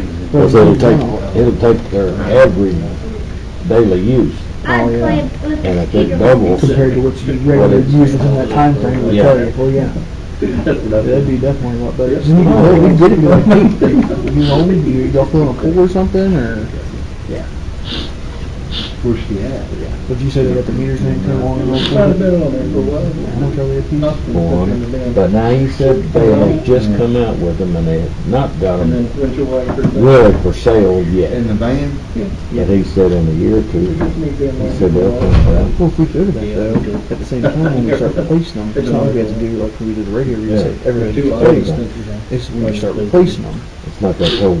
Because it'll take, it'll take their average daily use, I Oh, yeah. played with and I the think Peter. doubles. compared to what you regularly use within that time frame would tell you, well, yeah, that'd be definitely a lot better. You know, we did it, like, hey, you know, you, y'all filling a pool or something, or, Where's she at? Yeah. but you said they got the meters and everything on and Might have on. been on there for a while. How much are they a piece? on. But now you said they had just come out with them and they had not got And them then went your way. really for sale In yet. the van? But he said in a year or two, he said they'll come out. Well, if we do that though, at the same time, when we start replacing them, it's not like we have to do like we did the radio, we said everything Two gets items. replaced. It's when you start replacing them. It's not that whole,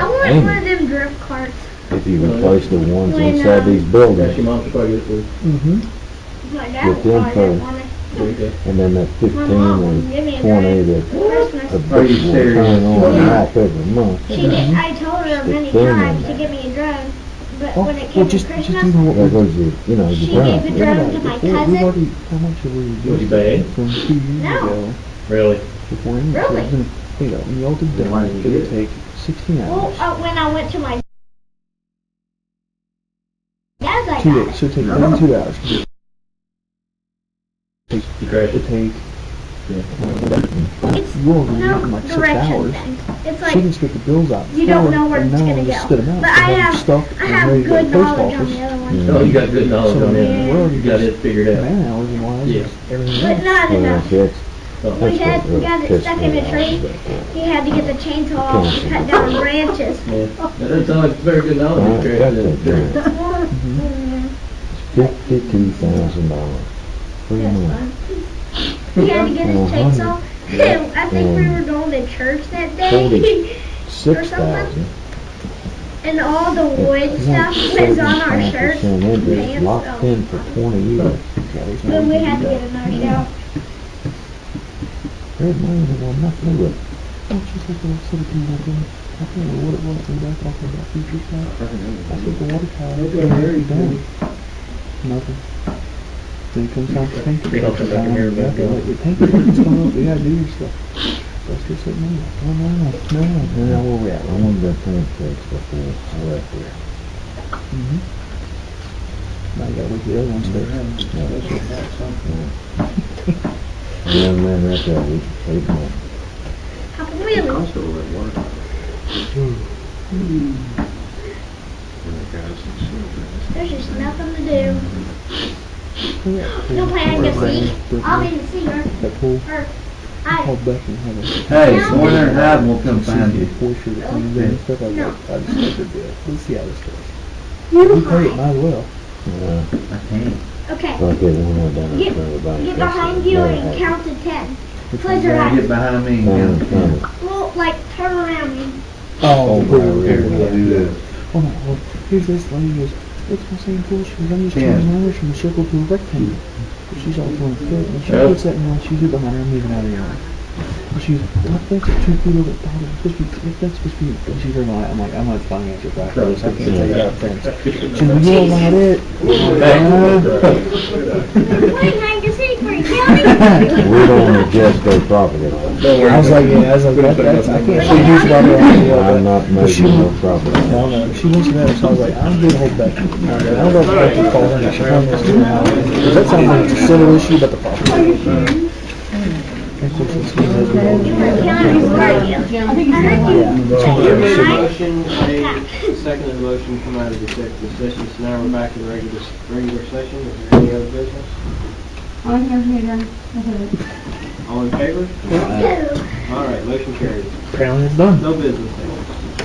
uh, wanted one uh, of angle. them drift carts. If you replace the ones inside these buildings, That's your mom's probably good for Mm-hmm. My dad Get them wanted for- one. it. and then that My fifteen mom or wouldn't give me a twenty drive that for Christmas. a bitch will turn on and off every month. She did, I told her many It's been times there. to give me a drone, but when it Well, came to Oh, just, just Christmas, even what There we. goes your, you know, She your gave a ground. drone to my We've cousin. already, how much have we Was he reduced bad? from two years No. ago? Really? Before any Really? prison, you know, when y'all did Then why that, did it you would do take sixteen Well, hours. uh, when I went to my dad's, I Two got days, it. so it'd take one, two hours. to do it. You crashed It'd it? take, you It's all were no looking like six direction hours. thing. It's She like, can spit the bills out. you don't for know where an it's hour gonna and go. Spit them out. But so I they're have, stuck I and ready to have go to good the post knowledge on office. the other one, Oh, you got good knowledge So, I on mean, we're that. already You got it just figured out. man hours and wise, Yeah. and everything but else. not Well, enough. that's, Oh, We that's had, what we really got it pissed stuck in me a tree. off. He had to get the chainsaw and cut down branches. yeah. That doesn't sound like very good knowledge. I You got crashed that it. drone. Fifty-two thousand dollars. Pretty much. He had to get his Uh-huh. chainsaw. I think we Um, were going to church that forty. day, Six thousand. and all the wood stuff was on our shirts. and pants, Locked so- in for twenty years. Then we had to get another shower. There's money that will not do it. Don't you think they'll sort of do that thing? I can't remember what it was, we were talking about future stuff. I think the water tower, it They're doing very was good. done. Nothing. Then it comes time to think. They don't come back in here and back up. We think something's coming up, we gotta do your stuff. Let's just sit down. Oh, no, no, no, Now, no. where we at? I wanted that thing fixed before I left here. Mhm. Now you gotta wait for the other ones to. The young man right there, we should take him. How come we only There's just nothing to do. No way I can see. I'll be the singer. That pool, Or I. called back and had a. Hey, someone in that will come find you. Before she was coming in and stuff, I was No. like, I just think it'd be a- let's see how this goes. You We pay it, hide. might as well. Uh, I can't. Okay. I'll get one more down there for everybody. Get behind you and count to ten. Close your Get eyes. behind me and get him. Well, like turn around me. Oh, Oh, the pool yeah, was yeah, very yeah. good. Do this. Oh my god, here's this lady who goes, it's my same pool, she's I'm just Yeah. turning my hours from a circle to a rectangle. But she's all thrown fit, and she Yeah. puts that in one, she's right behind her, I'm leaving out of the yard. And she's like, what, that's two feet over, the bottom, it's supposed to be, that's supposed to be, and she's her mind, I'm like, I'm not buying it, you're back, I can't take it out of fence. She's like, yeah, about it. Wait, I can see for you. Counting. We don't adjust their property line. Don't worry. I was like, yeah, I was like, that, that's, I can't But see you about I'm it. not making no property. line. No, no, she mentioned that, so I was like, I'm gonna hold back. I don't know if I can call her, and she'll come this to hour, because that sounds like a silly issue, but the problem. Of course, it's my husband. You were counting, weren't you? I heard you. Nine. Motion made, seconded motion come out of executive session, so now we're back in regular, regular session, is there any other business? All in favor? Two. All right, motion carries. Apparently it's done. No business.